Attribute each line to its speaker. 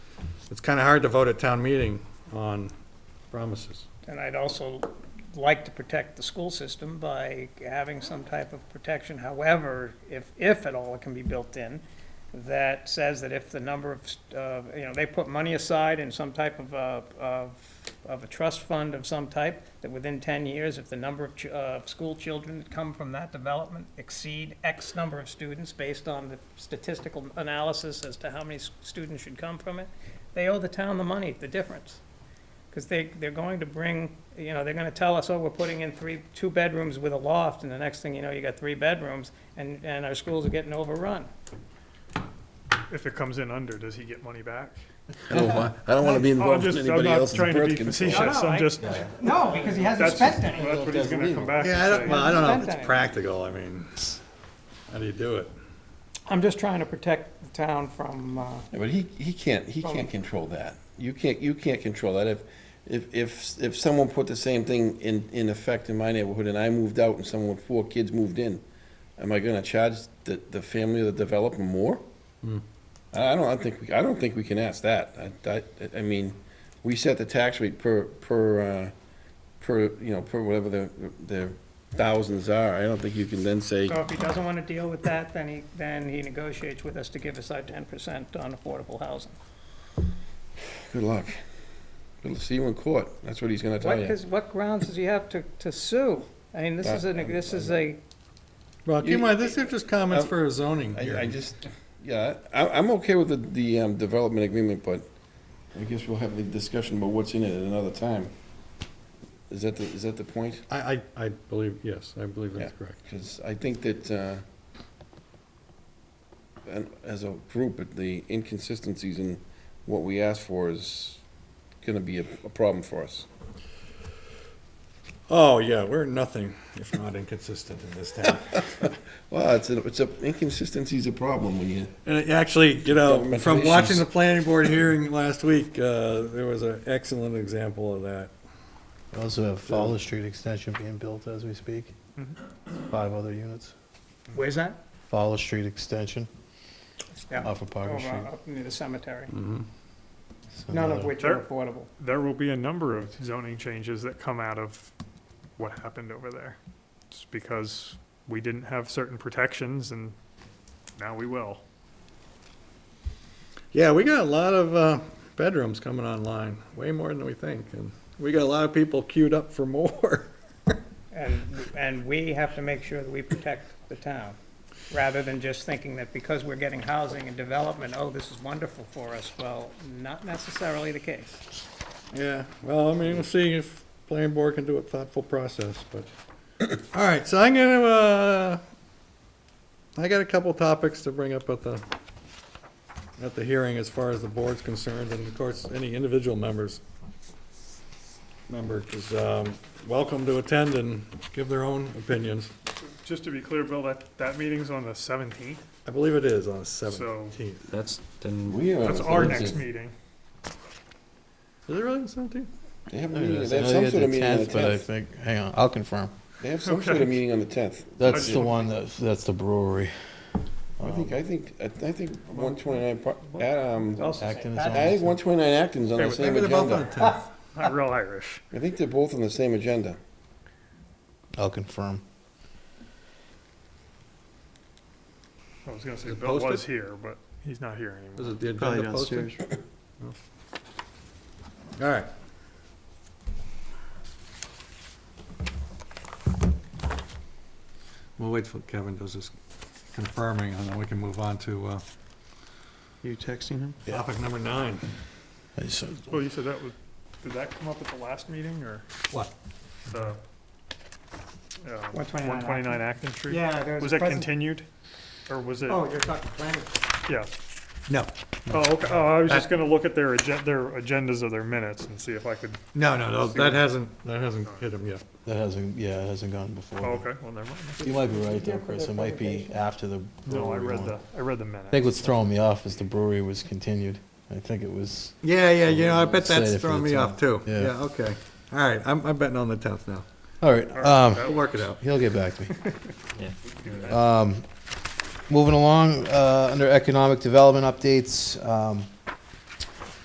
Speaker 1: it's kind of hard to vote at town meeting on promises.
Speaker 2: And I'd also like to protect the school system by having some type of protection, however, if, if at all it can be built in, that says that if the number of, uh, you know, they put money aside in some type of, uh, of, of a trust fund of some type, that within ten years, if the number of, ch- uh, school children that come from that development exceed X number of students based on the statistical analysis as to how many s- students should come from it, they owe the town the money, the difference. Because they, they're going to bring, you know, they're gonna tell us, oh, we're putting in three, two bedrooms with a loft, and the next thing you know, you got three bedrooms, and, and our schools are getting overrun.
Speaker 3: If it comes in under, does he get money back?
Speaker 4: I don't want, I don't want to
Speaker 3: Oh,
Speaker 4: be
Speaker 3: I'm
Speaker 4: involved in
Speaker 3: just, I'm
Speaker 4: anybody
Speaker 3: not
Speaker 4: else's
Speaker 3: trying to be
Speaker 4: birth control.
Speaker 3: facetious,
Speaker 2: No, no, I-
Speaker 3: I'm just,
Speaker 2: No, because he hasn't
Speaker 3: that's,
Speaker 2: spent
Speaker 3: that's
Speaker 2: any.
Speaker 3: what he's gonna come back
Speaker 1: Yeah, I don't,
Speaker 3: and
Speaker 1: well,
Speaker 3: say.
Speaker 1: I don't know if it's practical, I mean, how do you do it?
Speaker 2: I'm just trying to protect the town from, uh,
Speaker 4: Yeah, But he, he can't, he can't
Speaker 3: Oh.
Speaker 4: control that. You can't, you can't control that. If, if, if, if someone put the same thing in, in effect in my neighborhood and I moved out and someone with four kids moved in, am I gonna charge the, the family of the developer more? Hmm. I I don't, I think, we- I don't think we can ask that. I, I, I mean, we set the tax rate per, per, uh, per, you know, per whatever the, the thousands are. I don't think you can then say,
Speaker 2: so if he doesn't wanna deal with that, then he, then he negotiates with us to give us our ten percent on affordable housing.
Speaker 4: good luck. We'll see you in court. That's what he's gonna tell
Speaker 2: What,
Speaker 4: you.
Speaker 2: cause what grounds does he have to, to sue? I mean, this is a, this is a,
Speaker 1: Well, keep in mind, these are just comments
Speaker 4: Uh,
Speaker 1: for a zoning
Speaker 4: I, I
Speaker 1: hearing.
Speaker 4: just, yeah, I, I'm okay with the, the, um, development agreement, but I guess we'll have the discussion about what's in it at another time. Is that the, is that the point?
Speaker 1: I, I, I believe, yes, I believe that's
Speaker 4: Yeah.
Speaker 1: correct.
Speaker 4: Because I think that, uh, and as a group, the inconsistencies in what we ask for is gonna be a, a problem for us.
Speaker 1: Oh, yeah, we're nothing if not inconsistent in this town.
Speaker 4: Well, it's a, it's a, inconsistency's a problem when you,
Speaker 1: And it actually, you know,
Speaker 4: Government
Speaker 1: from watching
Speaker 4: relations.
Speaker 1: the planning board hearing last week, uh, there was an excellent example of that.
Speaker 5: We Also have Fowler Street Extension being built as we speak. Five other units.
Speaker 2: where's that?
Speaker 5: Fowler Street Extension
Speaker 2: Yeah,
Speaker 5: off of Parker
Speaker 2: over-
Speaker 5: Street.
Speaker 2: Up near the cemetery,
Speaker 5: So
Speaker 2: none of
Speaker 5: another-
Speaker 2: which are
Speaker 3: Sure.
Speaker 2: affordable.
Speaker 3: There will be a number of zoning changes that come out of what happened over there. It's because we didn't have certain protections and now we will.
Speaker 1: Yeah, we got a lot of uh, bedrooms coming online, way more than we think, and we got a lot of people queued up for more.
Speaker 2: And, and we have to make sure that we protect the town, rather than just thinking that because we're getting housing and development, oh, this is wonderful for us. Well, not necessarily the case.
Speaker 1: Yeah, well, I mean, we'll see if planning board can do a thoughtful process, but, all right, so I'm gonna, uh, I got a couple topics to bring up at the, at the hearing as far as the board's concerned, and of course, any individual members, member is, um, welcome to attend and give their own opinions.
Speaker 3: Just to be clear, Bill, that, that meeting's on the seventeenth,
Speaker 1: I believe it is on the seventeenth.
Speaker 6: That's, then,
Speaker 4: we are.
Speaker 3: that's our
Speaker 4: it's a-
Speaker 3: next meeting.
Speaker 1: Is it really the seventeenth?
Speaker 4: They have a
Speaker 5: There it
Speaker 4: meeting,
Speaker 5: is.
Speaker 4: they have
Speaker 5: I
Speaker 4: some
Speaker 5: think
Speaker 4: sort of
Speaker 5: it's
Speaker 4: meeting on the
Speaker 5: 10th, But I
Speaker 4: tenth.
Speaker 5: think, hang on, I'll confirm.
Speaker 4: They have some sort of
Speaker 3: Okay.
Speaker 4: meeting on Oh, the tenth.
Speaker 5: That's
Speaker 3: just-
Speaker 5: the one that, that's the brewery.
Speaker 4: I think, I think, I I think one twenty-nine, um,
Speaker 5: Acton is
Speaker 4: I
Speaker 5: on
Speaker 4: think one twenty-nine Acton's on
Speaker 3: Yeah,
Speaker 4: the
Speaker 3: but
Speaker 4: same
Speaker 1: They're both on
Speaker 4: agenda.
Speaker 1: the tenth.
Speaker 3: Not real Irish.
Speaker 4: I think they're both on the same agenda.
Speaker 5: I'll confirm.
Speaker 3: I was gonna say
Speaker 1: Is it
Speaker 3: Bill was
Speaker 1: posted?
Speaker 3: here, but he's not here
Speaker 1: Is
Speaker 3: anymore.
Speaker 1: it the agenda posted? All right. We'll wait till Kevin does his confirming, and then we can move on to uh,
Speaker 6: you texting him?
Speaker 1: topic number nine.
Speaker 5: I just-
Speaker 3: Well, you said that was, did that come up at the last meeting or
Speaker 1: What?
Speaker 3: the? One
Speaker 2: 129
Speaker 3: One twenty-nine Acton Street?
Speaker 2: there
Speaker 3: Was Oh. that continued? Or was it,
Speaker 2: Oh, you're talking planning.
Speaker 3: yeah.
Speaker 6: No,
Speaker 3: Oh, okay, oh, I was just gonna look at their agen, their agendas of their minutes and see if I could,
Speaker 1: No, no, no, that hasn't, that hasn't hit him yet.
Speaker 5: That hasn't, yeah, it hasn't gone
Speaker 3: oh,
Speaker 5: before.
Speaker 3: okay, well, never mind.
Speaker 5: You might be right though, Chris. It might be after the
Speaker 3: No, I
Speaker 5: brewery
Speaker 3: read
Speaker 5: one.
Speaker 3: the, I read the
Speaker 5: I
Speaker 3: minutes.
Speaker 5: think what's throwing me off is the brewery was continued. I think it was,
Speaker 1: Yeah, yeah, you know, I bet
Speaker 5: Say
Speaker 1: that's
Speaker 5: if
Speaker 1: throwing
Speaker 5: it's
Speaker 1: me
Speaker 5: on.
Speaker 1: off, too.
Speaker 5: Yeah.
Speaker 1: Yeah, okay. All right, I'm, I'm betting on the tenth now.
Speaker 5: all right, um,
Speaker 1: We'll work it out.
Speaker 5: He'll get back to me.
Speaker 6: Yeah.
Speaker 5: Um, moving along, uh, under economic development updates, um,